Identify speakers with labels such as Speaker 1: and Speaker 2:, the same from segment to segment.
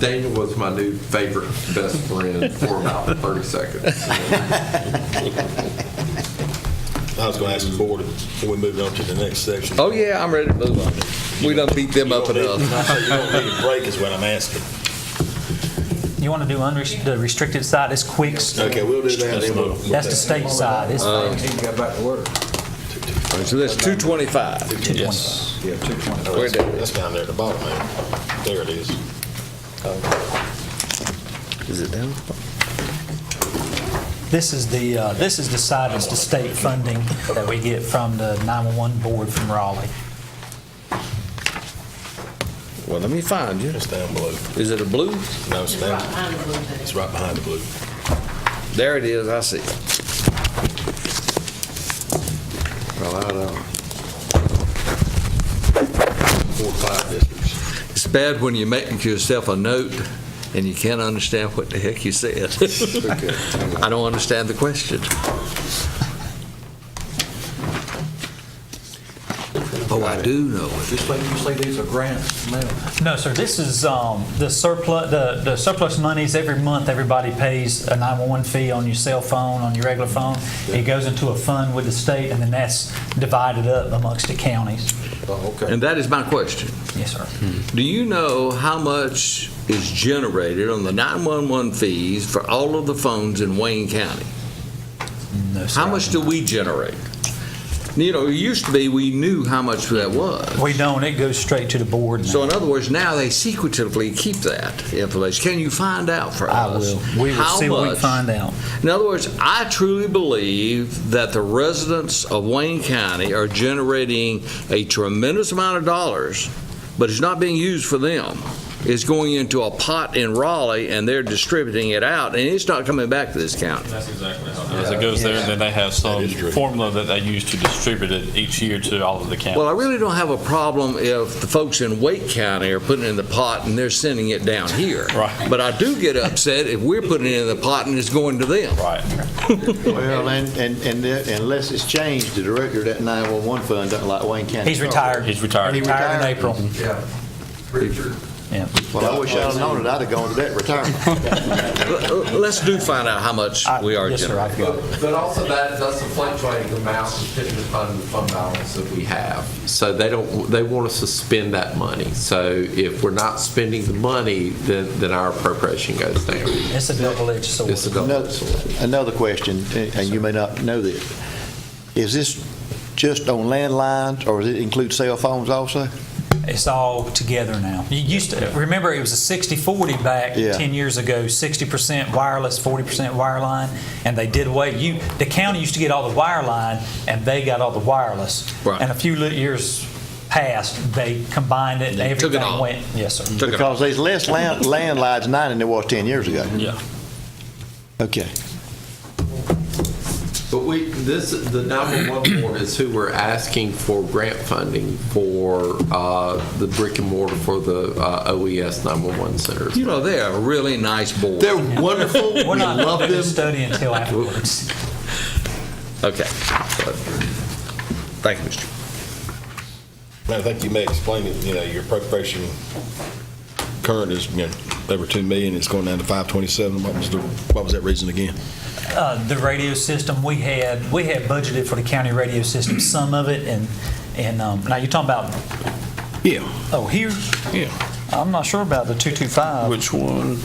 Speaker 1: Daniel was my new favorite best friend for about 30 seconds.
Speaker 2: I was going to ask the board, can we move on to the next section?
Speaker 3: Oh, yeah, I'm ready to move on. We done beat them up
Speaker 2: You don't need-
Speaker 3: enough.
Speaker 2: I say You don't need a break is what I'm asking.
Speaker 4: You want to do unrest- the restricted side, it's quick,
Speaker 2: Okay, we'll do that. then we'll-
Speaker 4: that's the state side, it's
Speaker 3: Uh,
Speaker 5: He got back to work.
Speaker 3: So that's 225.
Speaker 4: Yes.
Speaker 5: Yeah, two twenty.
Speaker 2: Oh, That's that's down there at the bottom there. There it is.
Speaker 3: Is it down?
Speaker 4: This is the, uh, this is the side that's the state funding that we get from the 911 board from Raleigh.
Speaker 3: Well, let me find you.
Speaker 2: It's down below.
Speaker 3: Is it a blue?
Speaker 2: No, it's down, it's right behind the blue.
Speaker 3: There it is, I see it.
Speaker 1: Well, I don't.
Speaker 2: Four, five districts.
Speaker 3: It's bad when you make yourself a note and you can't understand what the heck you said. I don't understand the question. Oh, I do know it.
Speaker 5: You say, you say these are grants now?
Speaker 4: No, sir, this is um, the surplus, the the surplus monies, every month, everybody pays a 911 fee on your cell phone, on your regular phone. It goes into a fund with the state, and then that's divided up amongst the counties.
Speaker 5: Oh, okay.
Speaker 3: And that is my question.
Speaker 4: Yes, sir.
Speaker 3: Do you know how much is generated on the 911 fees for all of the phones in Wayne County?
Speaker 4: No, sir.
Speaker 3: How much do we generate? You know, it used to be we knew how much that was.
Speaker 4: We don't, it goes straight to the board. now.
Speaker 3: So in other words, now they secretively keep that information. Can you find out for
Speaker 4: I
Speaker 3: us?
Speaker 4: will. We will
Speaker 3: how
Speaker 4: see what we
Speaker 3: much?
Speaker 4: find out.
Speaker 3: In other words, I truly believe that the residents of Wayne County are generating a tremendous amount of dollars, but it's not being used for them. It's going into a pot in Raleigh, and they're distributing it out, and it's not coming back to this county.
Speaker 6: That's exactly how. As it goes there, then they have some
Speaker 2: is true.
Speaker 6: formula that they use to distribute it each year to all of the counties.
Speaker 3: Well, I really don't have a problem if the folks in Wake County are putting it in the pot and they're sending it down here.
Speaker 6: Right.
Speaker 3: But I do get upset if we're putting it in the pot and it's going to them.
Speaker 6: Right.
Speaker 7: Well, and, and, and that- unless it's changed, the director of that 911 fund doesn't like Wayne County.
Speaker 4: He's retired.
Speaker 6: He's retired.
Speaker 4: He retired in
Speaker 7: Retired.
Speaker 4: April.
Speaker 1: Yeah. Richard.
Speaker 4: Yeah.
Speaker 7: Well, I wish I'd have known it, I'd have gone to that retirement.
Speaker 3: L- l- Let's do find out how much
Speaker 4: I-
Speaker 3: we are
Speaker 4: Yes, sir,
Speaker 3: generating.
Speaker 4: I've got it.
Speaker 1: But but also that, that's a fluctuating amount depending upon the fund balance that we have. So they don't, they want us to spend that money. So if we're not spending the money, then, then our appropriation goes down.
Speaker 4: It's a double-edged sword.
Speaker 1: It's a double
Speaker 7: Another-
Speaker 1: sword.
Speaker 7: Another question, eh, and and you may not know this, is this just on landlines, or does it include cell phones also?
Speaker 4: It's all together now. You used to, remember, it was a 60-40 back
Speaker 7: Yeah.
Speaker 4: 10 years ago, 60% wireless, 40% wireline, and they did away, you, the county used to get all the wireline, and they got all the wireless.
Speaker 3: Right.
Speaker 4: And a few li- years passed, they combined it, and
Speaker 3: They took it
Speaker 4: everything
Speaker 3: all.
Speaker 4: went. Yes, sir.
Speaker 3: Took it off.
Speaker 7: Because there's less land- landlines now than there was 10 years ago.
Speaker 6: Yeah.
Speaker 7: Okay.
Speaker 1: But we, this, the 911 board is who we're asking for grant funding for uh, the brick and mortar for the uh, OES 911 centers.
Speaker 3: You know, they're a really nice board.
Speaker 1: They're wonderful. We
Speaker 4: We're not
Speaker 1: love
Speaker 4: going to do
Speaker 1: them.
Speaker 4: the study until afterwards.
Speaker 3: Okay. Thank you, Mr.
Speaker 2: I think you may explain it, you know, your appropriation current is, you know, over 2 million, it's going down to 527. What was the, what was that reason again?
Speaker 4: Uh, The radio system, we had, we had budgeted for the county radio system, some of it, and, and, um, now you're talking about,
Speaker 2: Yeah,
Speaker 4: oh, here?
Speaker 2: yeah.
Speaker 4: I'm not sure about the 225.
Speaker 6: Which one?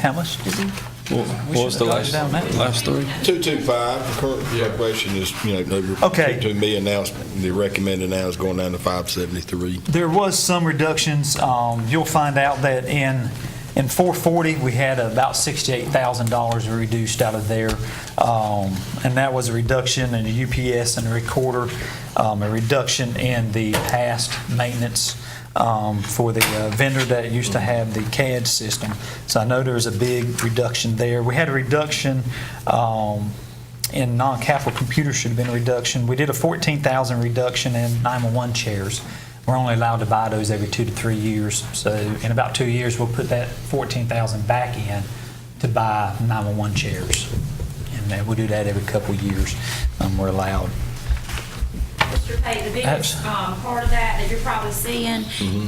Speaker 4: How much did we? We
Speaker 6: What was the
Speaker 4: should've
Speaker 6: last,
Speaker 4: gone down that.
Speaker 6: last three?
Speaker 2: 225, current appropriation is, you know, over
Speaker 4: Okay.
Speaker 2: 2 million now, it's- the recommended now is going down to 573.
Speaker 4: There was some reductions. Um, You'll find out that in, in 440, we had about $68,000 reduced out of there. Um, And that was a reduction in the UPS and the recorder, um, a reduction in the past maintenance um, for the uh, vendor that used to have the CAD system. So I know there was a big reduction there. We had a reduction um, in non-capital computers should have been a reduction. We did a 14,000 reduction in 911 chairs. We're only allowed to buy those every two to three years. So in about two years, we'll put that 14,000 back in to buy 911 uh, chairs. And then we do that every couple of years. Um, We're allowed.
Speaker 8: Mr. Pate, the biggest um, part of that that you're probably seeing